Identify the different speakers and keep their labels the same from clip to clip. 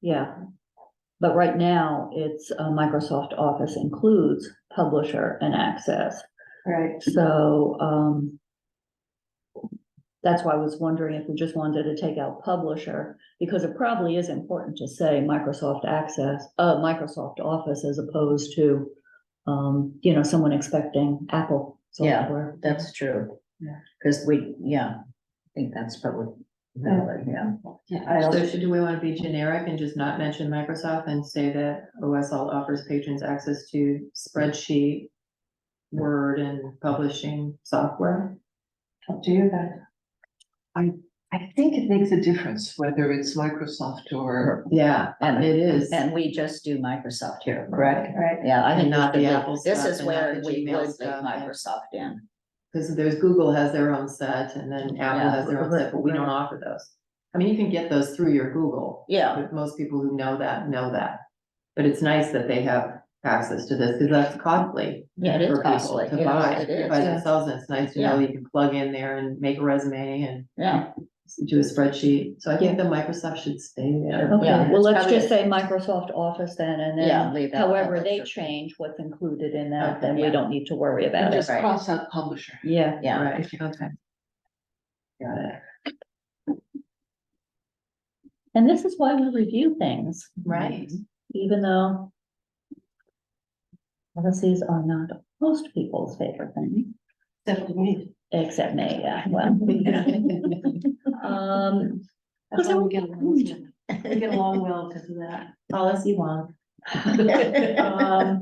Speaker 1: Yeah. But right now, it's uh, Microsoft Office includes publisher and access,
Speaker 2: Right.
Speaker 1: so, um. That's why I was wondering if we just wanted to take out publisher, because it probably is important to say Microsoft Access, uh, Microsoft Office as opposed to. Um, you know, someone expecting Apple
Speaker 3: Yeah.
Speaker 1: software.
Speaker 3: That's true.
Speaker 2: Yeah.
Speaker 3: Cause we, yeah, I think that's probably valid, yeah.
Speaker 2: I also, should- do we want to be generic and just not mention Microsoft and say that OSL offers patrons access to spreadsheet, Word and publishing software?
Speaker 4: Up to you guys. I, I think it makes a difference whether it's Microsoft or.
Speaker 2: Yeah,
Speaker 3: And-
Speaker 2: it is.
Speaker 3: And we just do Microsoft here, correct?
Speaker 4: Right.
Speaker 3: Yeah, I
Speaker 2: And
Speaker 3: think
Speaker 2: not
Speaker 3: not
Speaker 2: the
Speaker 3: the,
Speaker 2: Apple
Speaker 3: this
Speaker 2: stuff
Speaker 3: is
Speaker 2: and not
Speaker 3: where
Speaker 2: the
Speaker 3: we
Speaker 2: Gmail
Speaker 3: would leave
Speaker 2: stuff and-
Speaker 3: Microsoft in.
Speaker 2: Because there's Google has their own set and then Apple
Speaker 3: Yeah.
Speaker 2: has their own set, but we don't offer those. I mean, you can get those through your Google.
Speaker 3: Yeah,
Speaker 2: But most people who know that, know that. But it's nice that they have access to this, because that's costly.
Speaker 3: yeah, it is
Speaker 2: for people
Speaker 3: costly.
Speaker 2: To
Speaker 3: It-
Speaker 2: buy,
Speaker 3: It is,
Speaker 2: by themselves, and it's nice to know you can plug in there and make a resume and
Speaker 3: yeah.
Speaker 2: do a spreadsheet, so I think that Microsoft should stay there.
Speaker 1: Okay,
Speaker 3: Oh, Yeah,
Speaker 1: well,
Speaker 3: it's
Speaker 1: let's
Speaker 3: probably-
Speaker 1: just say Microsoft Office then, and
Speaker 3: Yeah,
Speaker 1: then
Speaker 3: leave that
Speaker 1: however they
Speaker 3: publisher.
Speaker 1: change what's included in that,
Speaker 2: Okay,
Speaker 1: then we
Speaker 3: yeah.
Speaker 1: don't need to worry about it.
Speaker 4: Just
Speaker 3: right.
Speaker 4: cross out publisher.
Speaker 1: Yeah.
Speaker 3: Yeah,
Speaker 2: Right,
Speaker 4: Okay.
Speaker 2: got it.
Speaker 1: And this is why we review things.
Speaker 2: Right.
Speaker 1: Even though policies are not most people's favorite thing,
Speaker 4: Definitely.
Speaker 1: except me, yeah, well. Um,
Speaker 4: That's how we get along. We get along well because of that.
Speaker 2: Policy one.
Speaker 1: um,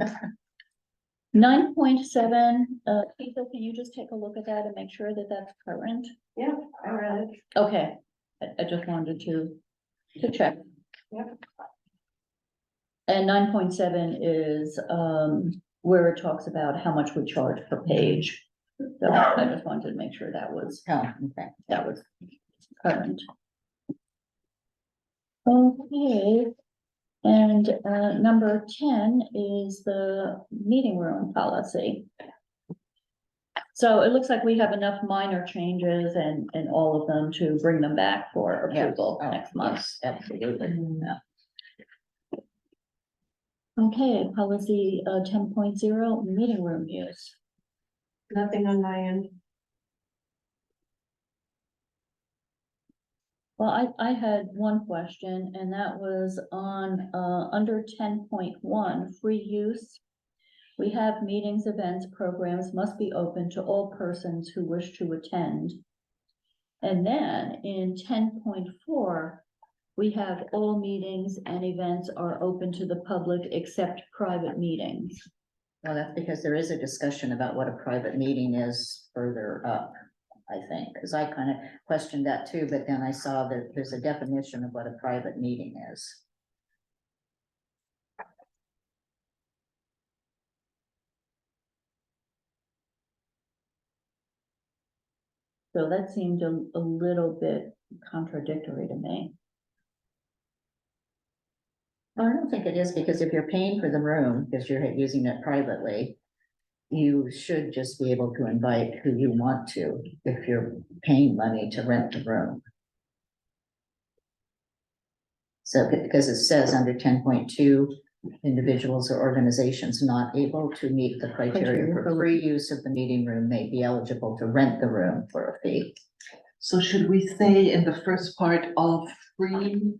Speaker 1: nine point seven, uh, Lisa, can you just take a look at that and make sure that that's current?
Speaker 4: Yeah, I read it.
Speaker 1: Okay, I, I just wanted to, to check.
Speaker 4: Yep.
Speaker 1: And nine point seven is, um, where it talks about how much we charge per page. So I just wanted to make sure that was,
Speaker 3: Oh, okay.
Speaker 1: that was current. Okay, and, uh, number ten is the meeting room policy. So it looks like we have enough minor changes and, and all of them to bring them back for
Speaker 3: Yeah.
Speaker 1: approval
Speaker 3: Oh,
Speaker 1: next month.
Speaker 3: yes, Absolutely. Yeah.
Speaker 1: Okay, policy, uh, ten point zero, meeting room use.
Speaker 4: Nothing on my end.
Speaker 1: Well, I, I had one question and that was on, uh, under ten point one, free use. We have meetings, events, programs must be open to all persons who wish to attend. And then in ten point four, we have all meetings and events are open to the public except private meetings.
Speaker 3: Well, that's because there is a discussion about what a private meeting is further up, I think, because I kind of questioned that too, but then I saw that there's a definition of what a private meeting is.
Speaker 1: So that seemed a, a little bit contradictory to me.
Speaker 3: Well, I don't think it is, because if you're paying for the room, because you're using it privately, you should just be able to invite who you want to, if you're paying money to rent the room. So, because it says under ten point two, individuals or organizations not able to meet the criteria for free use of the meeting room may be eligible to rent the room for a fee.
Speaker 4: So should we say in the first part, all free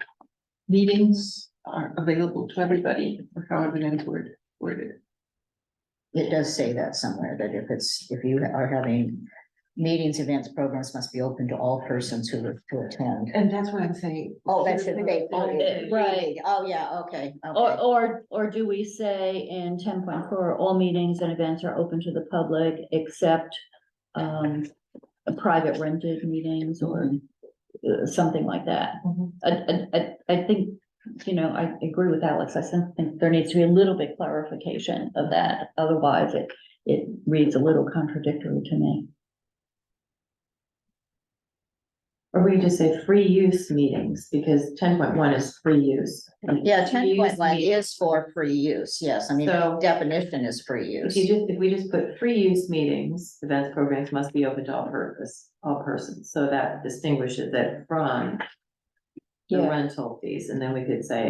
Speaker 4: meetings are available to everybody, or however that's word, worded?
Speaker 3: It does say that somewhere, that if it's, if you are having meetings, events, programs must be open to all persons who wish to attend.
Speaker 4: And that's what I'm saying.
Speaker 3: Oh, that should be.
Speaker 4: All
Speaker 1: Right.
Speaker 3: Oh, yeah, okay,
Speaker 1: Or,
Speaker 3: okay.
Speaker 1: or, or do we say in ten point four, all meetings and events are open to the public except um, private rented meetings or uh, something like that?
Speaker 4: Mhm.
Speaker 1: I, I, I, I think, you know, I agree with Alex. I sen- think there needs to be a little bit clarification of that. Otherwise, it, it reads a little contradictory to me.
Speaker 2: Or we could just say free use meetings, because ten point one is free use.
Speaker 3: Yeah, ten point one
Speaker 2: Use meeting.
Speaker 3: is for free use, yes, I mean, the
Speaker 2: So-
Speaker 3: definition is free use.
Speaker 2: If you just, if we just put free use meetings, events, programs must be open to all purpose, all persons, so that distinguishes it from the
Speaker 1: Yeah.
Speaker 2: rental fees, and then we could say